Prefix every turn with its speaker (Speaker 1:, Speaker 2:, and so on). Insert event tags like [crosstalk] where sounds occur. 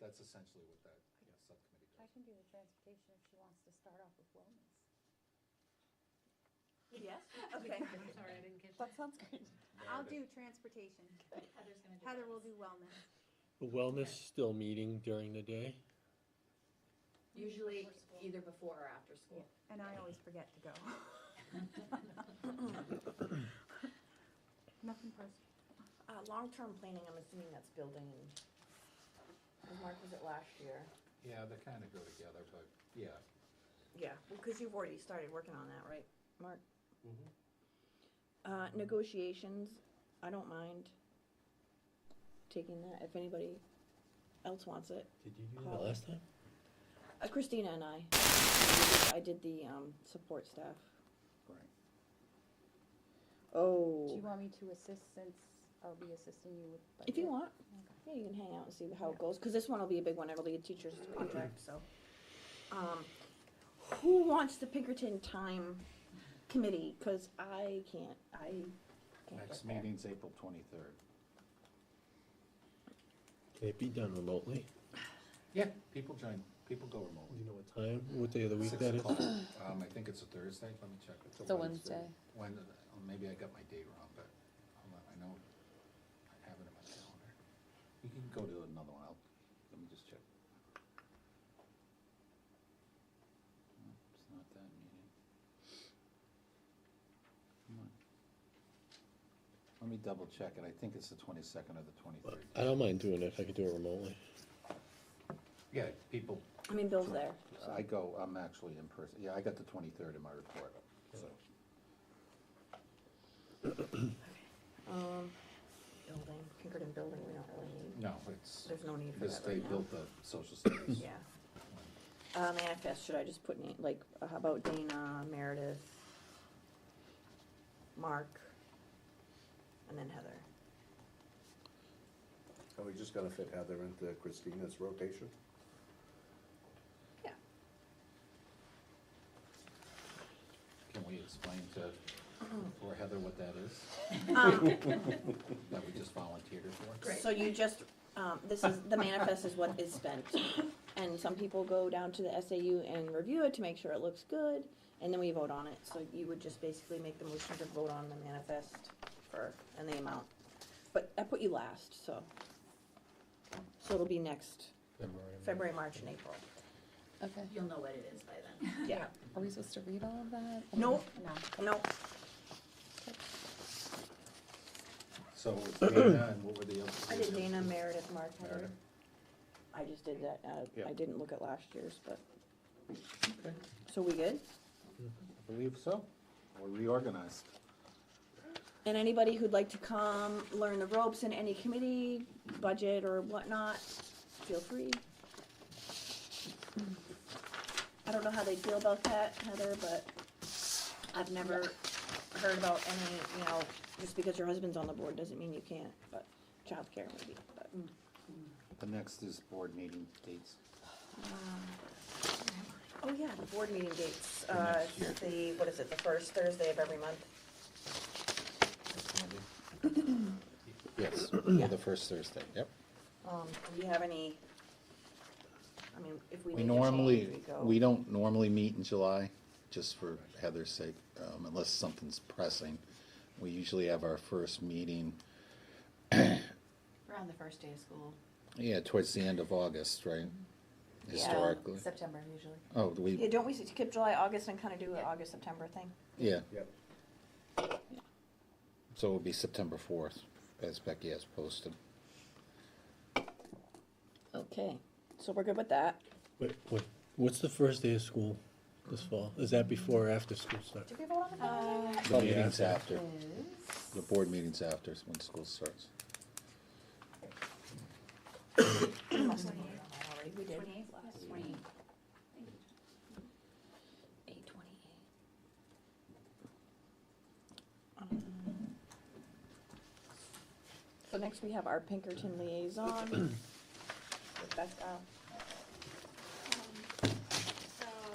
Speaker 1: that's essentially what that yeah, subcommittee
Speaker 2: I
Speaker 1: does.
Speaker 2: can do the transportation if she wants to start off with wellness.
Speaker 3: [laughs]
Speaker 4: Yes?
Speaker 3: I'm
Speaker 4: Okay.
Speaker 3: sorry, I didn't catch
Speaker 2: That
Speaker 3: that.
Speaker 2: sounds good.
Speaker 1: Got
Speaker 2: I'll
Speaker 1: it.
Speaker 2: do transportation.
Speaker 4: Heather's gonna do
Speaker 2: Heather will
Speaker 4: wellness.
Speaker 2: do wellness.
Speaker 5: The Wellness still meeting during the day?
Speaker 4: Usually
Speaker 3: Before school.
Speaker 4: either before or after school.
Speaker 2: And I always forget [laughs] to go. Nothing personal.
Speaker 6: Uh, long-term planning, I'm assuming that's building, because Mark was it last year?
Speaker 1: Yeah, they kind of go together, but, yeah.
Speaker 6: Yeah, because you've already started working on that, right, Mark?
Speaker 5: Mm-hmm.
Speaker 6: Uh, negotiations, I don't mind taking that, if anybody else wants it.
Speaker 5: Did you do that
Speaker 6: Call.
Speaker 5: last time?
Speaker 6: Uh, Christina and I, I did the, um, support staff.
Speaker 1: Right.
Speaker 2: Do you
Speaker 6: Oh,
Speaker 2: want me to assist since I'll be assisting you with?
Speaker 6: if you
Speaker 2: budget?
Speaker 6: want,
Speaker 2: Okay.
Speaker 6: yeah, you can hang out and see how it goes, because this one will be a big one, it'll be a teacher's contract, so. Um, who wants the Pinkerton time committee, because I can't, I can't
Speaker 1: Next
Speaker 6: get there.
Speaker 1: meeting's April twenty-third.
Speaker 5: Can it be done remotely?
Speaker 1: Yeah, people join, people go
Speaker 5: Do
Speaker 1: remotely.
Speaker 5: you know what time, what day of the week
Speaker 1: Six
Speaker 5: that is?
Speaker 1: o'clock. [coughs] Um, I think it's a Thursday, let me check.
Speaker 7: It's a Wednesday.
Speaker 1: When, Oh, maybe I got my date wrong, but hold on, I know, I have it in my calendar. You can go to another one, I'll, let me just check. No, It's not that meeting. Come on. Let me double check it, I think it's the twenty-second or the twenty-third.
Speaker 5: I don't mind doing it if I could do it remotely.
Speaker 1: Yeah, people,
Speaker 6: I mean, Bill's there.
Speaker 1: I go, I'm actually in person, yeah, I got the twenty-third in my report, so.
Speaker 6: Um, building, Pinkerton building, we don't really need.
Speaker 1: No, it's.
Speaker 6: There's no need for
Speaker 1: Because
Speaker 6: that right
Speaker 1: they
Speaker 6: now.
Speaker 1: built the social service.
Speaker 6: Yeah. Uh, manifest, should I just put, any- like, uh, how about Dana, Meredith, Mark, and then Heather?
Speaker 8: Are we just gonna fit Heather into Christina's rotation?
Speaker 6: Yeah.
Speaker 1: Can we explain to,
Speaker 6: Uh-huh.
Speaker 1: or Heather what that is?
Speaker 6: Um.
Speaker 1: [laughs] That we just volunteered her for?
Speaker 4: Great.
Speaker 6: So you just, um, this is, the manifest is what is spent. And some people go down to the SAU and review it to make sure it looks good, and then we vote on it. So you would just basically make the motion to vote on the manifest for, and the amount. But I put you last, so. So it'll be next February, March, and April.
Speaker 7: Okay.
Speaker 4: You'll know what it is by then.
Speaker 6: Yeah.
Speaker 7: Are we supposed to read all of that? or-
Speaker 6: Nope,
Speaker 2: No.
Speaker 6: nope.
Speaker 1: So it was Dana and what were the other?
Speaker 6: I did Dana, Meredith, Mark, Heather.
Speaker 1: Meredith.
Speaker 6: I just did that. uh, I
Speaker 8: Yeah.
Speaker 6: didn't look at last year's, but,
Speaker 1: Okay,
Speaker 6: so we good?
Speaker 1: I believe so. We're reorganized.
Speaker 6: And anybody who'd like to come learn the ropes in any committee, budget or whatnot, feel free. I don't know how they feel about that, Heather, but I've never heard about any, you know, just because your husband's on the board doesn't mean you can't, but childcare maybe, but.
Speaker 1: The next is board meeting dates.
Speaker 6: Oh, yeah, the board meeting dates, uh,
Speaker 1: next year.
Speaker 6: it's the, what is it, the first Thursday of every month?
Speaker 1: Yes, the first Thursday, yep.
Speaker 6: Um, do you have any, I mean, if we
Speaker 9: We
Speaker 6: need to change,
Speaker 9: normally,
Speaker 6: we go.
Speaker 9: we don't normally meet in July, just for Heather's sake, um, unless something's pressing. We usually have our first meeting,
Speaker 3: Around the first day of school,
Speaker 9: yeah, towards the end of August, right? Historically.
Speaker 3: September usually.
Speaker 9: Oh,
Speaker 6: Yeah,
Speaker 9: we,
Speaker 6: don't we skip July, August, and kind of do an
Speaker 3: Yeah.
Speaker 6: August, September thing?
Speaker 9: yeah,
Speaker 8: Yep.
Speaker 9: so it'll be September fourth, as Becky has posted.
Speaker 6: Okay, so we're good with that.
Speaker 5: Wait, what, what's the first day of school this fall? Is that before or after school starts?
Speaker 6: Did we vote on the calendar?
Speaker 9: The
Speaker 5: Oh, yeah.
Speaker 9: meeting's after,
Speaker 3: Is.
Speaker 9: the board meeting's after, is when school starts.
Speaker 6: We must
Speaker 4: Twenty-eight.
Speaker 6: have voted on that already, we did.
Speaker 4: Twenty-eight,
Speaker 6: Last year.
Speaker 4: twenty-eight.
Speaker 6: Eight twenty-eight. Um,
Speaker 9: [clears throat]
Speaker 6: So next we have our Pinkerton liaison. Rebecca.